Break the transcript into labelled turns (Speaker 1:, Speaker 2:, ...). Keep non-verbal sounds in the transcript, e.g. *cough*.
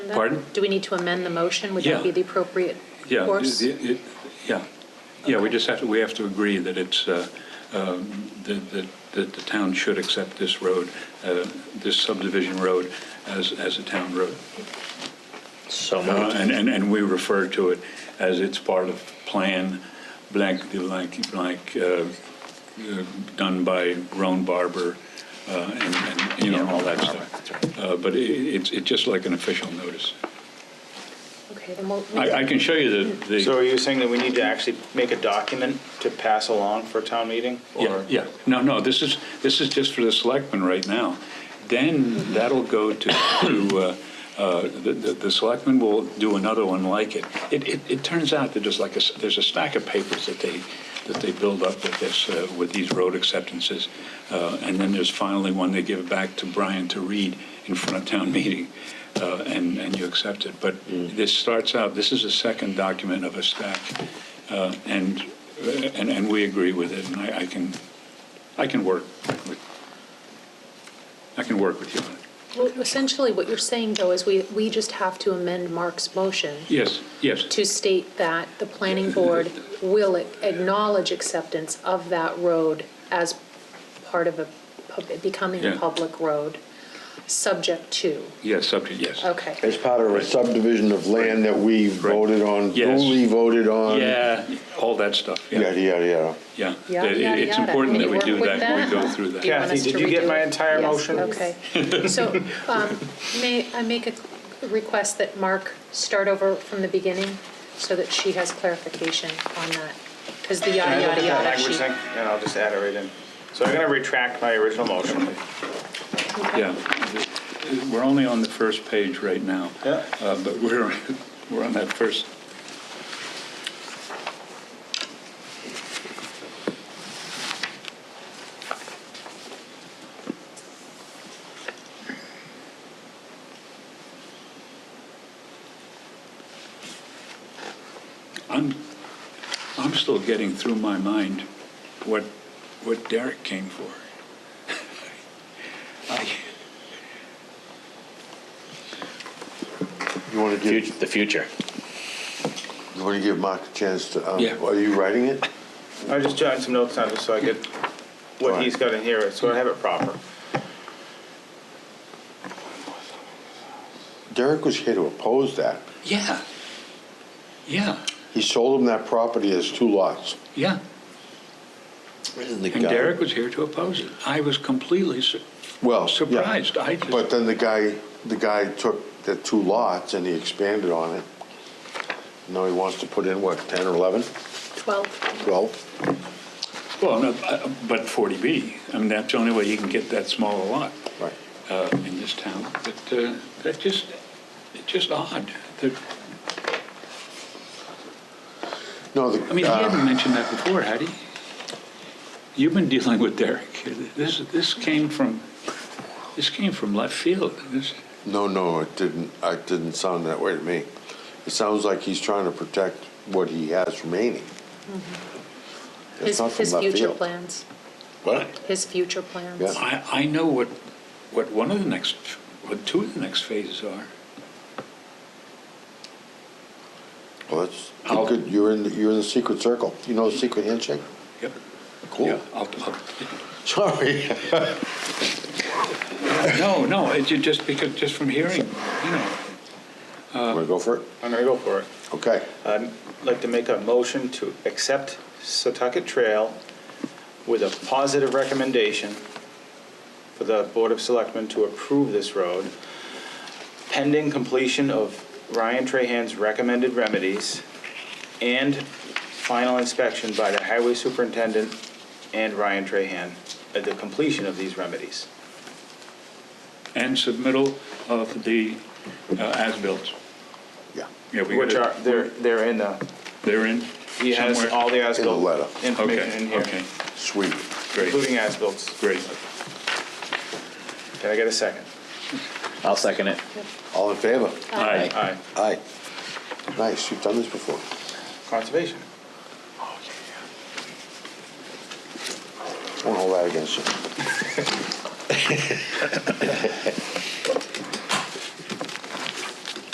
Speaker 1: agenda?
Speaker 2: Pardon?
Speaker 1: Do we need to amend the motion? Would
Speaker 2: Yeah.
Speaker 1: that be the appropriate
Speaker 2: Yeah,
Speaker 1: course?
Speaker 2: it- it- Yeah, yeah, we just have to, we have to agree that it's, uh, um, that that that the town should accept this road, uh, this subdivision road as as a town road.
Speaker 3: So
Speaker 2: Uh,
Speaker 3: moved.
Speaker 2: And and and we refer to it as it's part of Plan blank, blank, blank, uh, uh, done by Roan Barber uh, and, and, you know, all that stuff. Uh, But it- it's it's just like an official notice.
Speaker 1: Okay, then we'll,
Speaker 2: I I can show you the- the.
Speaker 3: So are you saying that we need to actually make a document to pass along for town meeting?
Speaker 2: Yeah,
Speaker 3: Or-
Speaker 2: yeah. No, no, this is, this is just for the selectmen right now. Then that'll go to, to, uh, uh, the, the the selectmen will do another one like it. It, it, it turns out that there's like a, s- there's a stack of papers that they, that they build up with this, uh, with these road acceptances. Uh, And then there's finally one they give back to Brian to read in front of town meeting, uh, and, and you accept it. But this starts out, this is the second document of a stack. Uh, And, and, and we agree with it, and I, I can, I can work with, I can work with you on it.
Speaker 1: well, essentially what you're saying though is we, we just have to amend Mark's motion
Speaker 2: Yes, yes,
Speaker 1: to state that the planning board will acknowledge acceptance of that road as part of a, pub- becoming a
Speaker 2: Yeah.
Speaker 1: public road, subject to,
Speaker 2: yes, subject, yes.
Speaker 1: okay.
Speaker 4: As part of a subdivision of land that we voted on,
Speaker 2: Yes.
Speaker 4: duly voted on.
Speaker 2: Yeah, all all that stuff,
Speaker 4: Yada,
Speaker 2: yeah,
Speaker 4: yada, yada.
Speaker 2: yeah.
Speaker 1: Yada,
Speaker 2: It-
Speaker 1: yada,
Speaker 2: It's
Speaker 1: yada.
Speaker 2: important
Speaker 1: Can
Speaker 2: that
Speaker 1: you
Speaker 2: we
Speaker 1: work
Speaker 2: do
Speaker 1: with
Speaker 2: that,
Speaker 1: that?
Speaker 2: we go through that.
Speaker 1: Do you want
Speaker 3: Kathy,
Speaker 1: us to
Speaker 3: did you get
Speaker 1: redo
Speaker 3: my
Speaker 1: it?
Speaker 3: entire
Speaker 1: Yes,
Speaker 3: motion?
Speaker 1: Okay.
Speaker 3: *laughs*
Speaker 1: So um, may I make a request that Mark start over from the beginning so that she has clarification on that? Because the
Speaker 3: Can I
Speaker 1: yada, yada,
Speaker 3: look at that
Speaker 1: yada
Speaker 3: language
Speaker 1: sheet.
Speaker 3: thing? And I'll just add it right in. So I'm going to retract my original motion.
Speaker 2: Yeah, we're only on the first page right now.
Speaker 3: Yeah.
Speaker 2: Uh, But we're, we're on that first, I'm, I'm still getting through my mind what, what Derek came for. *laughs* I-
Speaker 4: You want to
Speaker 3: Fut-
Speaker 4: give,
Speaker 3: The future.
Speaker 4: you want to give Mark a chance to, um,
Speaker 2: Yeah.
Speaker 4: are you writing it?
Speaker 3: I was just jotting some notes down just so I get what
Speaker 4: Alright.
Speaker 3: he's got in here, so I have it proper.
Speaker 4: Derek was here to oppose that.
Speaker 2: Yeah. Yeah,
Speaker 4: He sold him that property as two lots.
Speaker 2: yeah. And Derek was here to oppose it. I was completely, sur-
Speaker 4: Well, yeah.
Speaker 2: surprised. I just-
Speaker 4: But then the guy, the guy took the two lots and he expanded on it. Now he wants to put in, what, 10 or 11,
Speaker 1: 12.
Speaker 4: 12?
Speaker 2: well, no, uh, but 40B, I mean, that's the only way you can get that small a lot
Speaker 4: Right.
Speaker 2: uh, in this town. But uh, that just, it's just odd. that-
Speaker 4: No, the.
Speaker 2: I mean, he
Speaker 4: uh,
Speaker 2: hadn't mentioned that before, had he? You've been dealing with Derek. This, this came from, this came from left field. This-
Speaker 4: No, no, it didn't, it didn't sound that way to me. It sounds like he's trying to protect what he has remaining. It's
Speaker 1: Mm-hmm. His,
Speaker 4: not from
Speaker 1: his
Speaker 4: left
Speaker 1: future
Speaker 4: field.
Speaker 1: plans,
Speaker 4: What?
Speaker 1: his future plans.
Speaker 4: Yeah.
Speaker 2: I, I know what, what one of the next, what two of the next phases are.
Speaker 4: Well, that's,
Speaker 2: I'll-
Speaker 4: good, you're in, the- you're in the secret circle. You know the secret handshake?
Speaker 2: Yep. Yeah,
Speaker 4: Cool.
Speaker 2: I'll- I'll-
Speaker 4: *laughs* Sorry.
Speaker 2: No, no, it ju- just because, just from hearing, you know.
Speaker 4: Want to go for it?
Speaker 3: I'm going to go for it.
Speaker 4: Okay.
Speaker 3: I'd like to make a motion to accept Setauket Trail with a positive recommendation for the Board of Selectmen to approve this road pending completion of Ryan Trahan's recommended remedies and final inspection by the Highway Superintendent and Ryan Trahan at the completion of these remedies.
Speaker 2: And submittal of the uh, as-built.
Speaker 4: Yeah.
Speaker 2: Yeah, we
Speaker 3: Which are,
Speaker 2: gotta-
Speaker 3: they're, they're in the,
Speaker 2: They're in
Speaker 3: he has
Speaker 2: somewhere?
Speaker 3: all the as
Speaker 4: In the letter.
Speaker 3: information in
Speaker 2: Okay,
Speaker 3: here,
Speaker 2: okay,
Speaker 4: Sweet.
Speaker 2: great,
Speaker 3: including as-bills.
Speaker 2: great.
Speaker 3: Can I get a second?
Speaker 5: I'll second it.
Speaker 4: All in favor?
Speaker 2: Aye.
Speaker 3: Aye.
Speaker 4: Aye. Nice, you've done this before.
Speaker 3: Conservation.
Speaker 4: Won't hold that against you.